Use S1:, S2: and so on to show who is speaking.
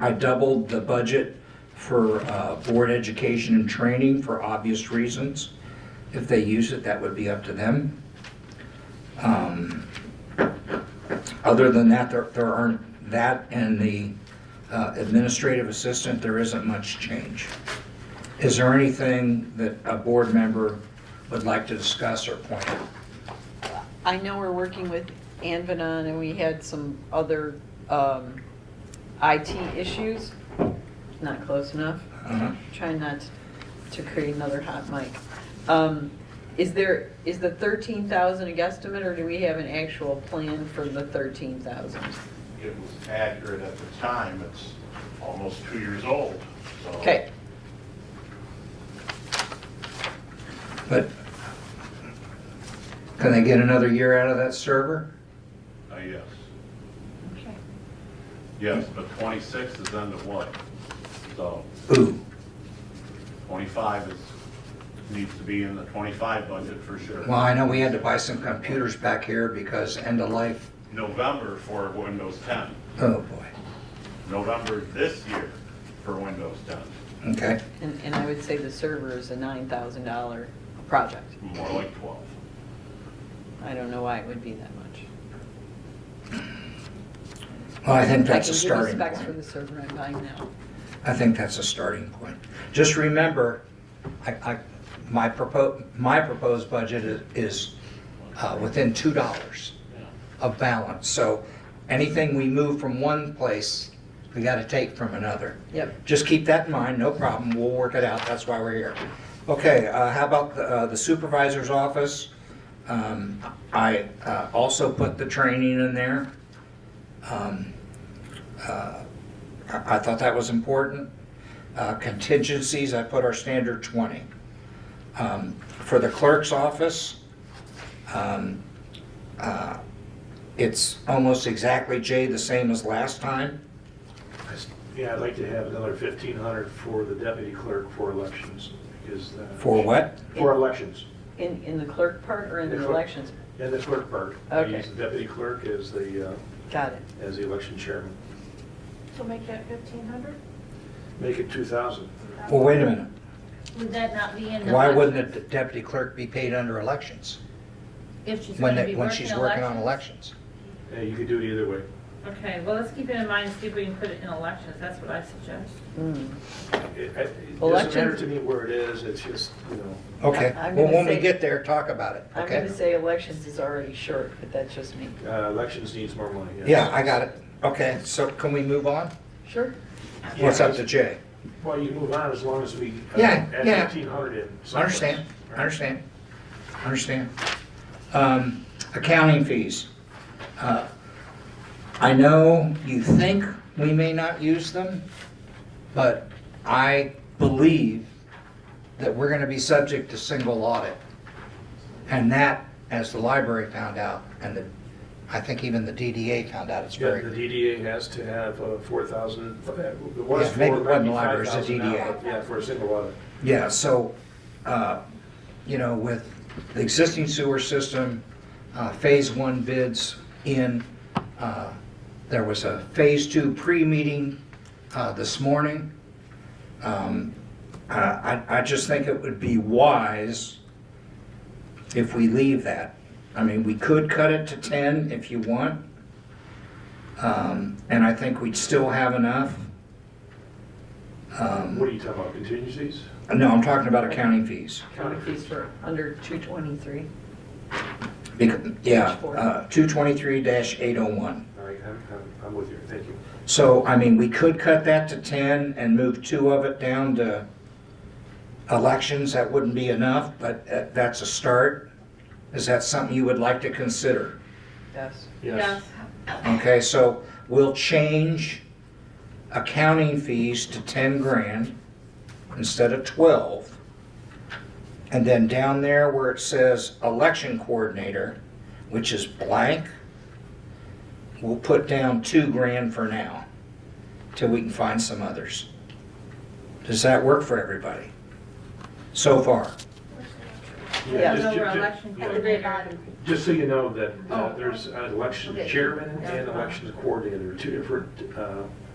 S1: I doubled the budget for uh, board education and training for obvious reasons. If they use it, that would be up to them. Um, Other than that, there there aren't, that and the uh, administrative assistant, there isn't much change. Is there anything that a board member would like to discuss or point out?
S2: I know we're working with Anvenon and we had some other um, IT issues. Not close enough.
S1: Uh-huh.
S2: Trying not to create another hot mic. Um, Is there, is the 13,000 a guesstimate or do we have an actual plan for the 13,000?
S3: It was accurate at the time, it's almost two years old, so.
S2: Okay,
S1: But can they get another year out of that server?
S3: Uh, Yes, yes, but 26 is under what? So
S1: Ooh.
S3: 25 is, needs to be in the 25 budget for sure.
S1: Well, I know we had to buy some computers back here because end of life,
S3: November for Windows 10,
S1: oh boy,
S3: November this year for Windows 10,
S1: okay.
S2: and, and I would say the server is a $9,000 project.
S3: more like 12.
S2: I don't know why it would be that much.
S1: Well, I think that's a
S2: I
S1: starting
S2: can give you specs for the
S1: point.
S2: server I'm buying now.
S1: I think that's a starting point. Just remember, I, I, my proposed, my proposed budget is, is, uh, within two dollars of balance. So anything we move from one place, we gotta take from another.
S2: Yep.
S1: Just keep that in mind, no problem, we'll work it out, that's why we're here. Okay, uh, how about the uh, the supervisor's office? Um, I uh, also put the training in there. Um, uh, I I thought that was important. Uh, Contingencies, I put our standard 20. Um, For the clerk's office, um, uh, it's almost exactly, Jay, the same as last time.
S4: Yeah, I'd like to have another fifteen hundred for the deputy clerk for elections, because. uh,
S1: For what?
S4: For elections,
S2: In, in the clerk part or in
S4: The
S2: the
S4: clerk.
S2: elections?
S4: and the clerk part. I
S2: Okay.
S4: use the deputy clerk as the, uh,
S2: Got it.
S4: as the election chairman.
S5: So make that fifteen hundred?
S4: Make it two thousand.
S1: Well, wait a minute.
S6: Would that not be in the?
S1: Why
S6: budget
S1: wouldn't the deputy clerk be paid under elections?
S6: If she's
S1: When,
S6: gonna
S1: they-
S6: be
S1: when she's working on
S6: elections?
S1: elections?
S4: Yeah, Uh, you could do it either way.
S7: Okay, well, let's keep it in mind, see if we can put it in elections, that's what I suggest.
S2: Mm.
S4: It I- it doesn't matter
S2: Elections-
S4: to me where it is, it's just, you know,
S1: Okay,
S2: I- I'm
S1: well,
S2: gonna
S1: when we
S2: say-
S1: get there, talk about it,
S2: I'm going
S1: okay?
S2: to say elections is already short, but that's just me.
S4: uh, elections needs more money. yes.
S1: Yeah, I got it. Okay, so can we move on?
S2: Sure.
S4: Yeah,
S1: What's up to Jay?
S4: Well, you move on as long as we. uh,
S1: Yeah, yeah.
S4: Add fifteen hundred in. someplace.
S1: I Understand, I understand, I understand. Um, Accounting fees. Uh, I know you think we may not use them, but I believe that we're gonna be subject to single audit. And that, as the library found out, and the, I think even the DDA found out, it's
S4: Yeah, the
S1: very,
S4: DDA has to have uh, 4,000, uh, it was
S1: Yeah, maybe it wasn't library, it's a
S4: 4,000 now.
S5: DDA.
S4: Yeah, for a single audit.
S1: yeah, so, uh, you know, with the existing sewer system, uh, phase one bids in, uh, there was a phase two pre-meeting uh, this morning. Um, I I- I just think it would be wise if we leave that. I mean, we could cut it to 10 if you want. Um, And I think we'd still have enough. Um,
S4: What are you talking about, contingencies?
S1: No, I'm talking about accounting fees.
S2: County fees for under 223.
S1: Bec- Yeah,
S2: Page four.
S1: uh, 223-801.
S4: All right, I'm, I'm- I'm with you, thank you.
S1: So, I mean, we could cut that to 10 and move two of it down to elections. That wouldn't be enough, but uh, that's a start. Is that something you would like to consider?
S2: Yes.
S4: Yes.
S1: Okay, so we'll change accounting fees to 10 grand instead of 12. And then down there where it says election coordinator, which is blank, we'll put down 2 grand for now till we can find some others. Does that work for everybody? So far?
S2: Yeah.
S4: just-
S7: So we're
S4: ju- ju-
S7: election
S4: yeah.
S6: At the very bottom.
S4: Just so you know that uh,
S7: Oh.
S4: there's an election
S6: Okay.
S4: chairman
S6: Yeah.
S4: and election coordinator, two different uh,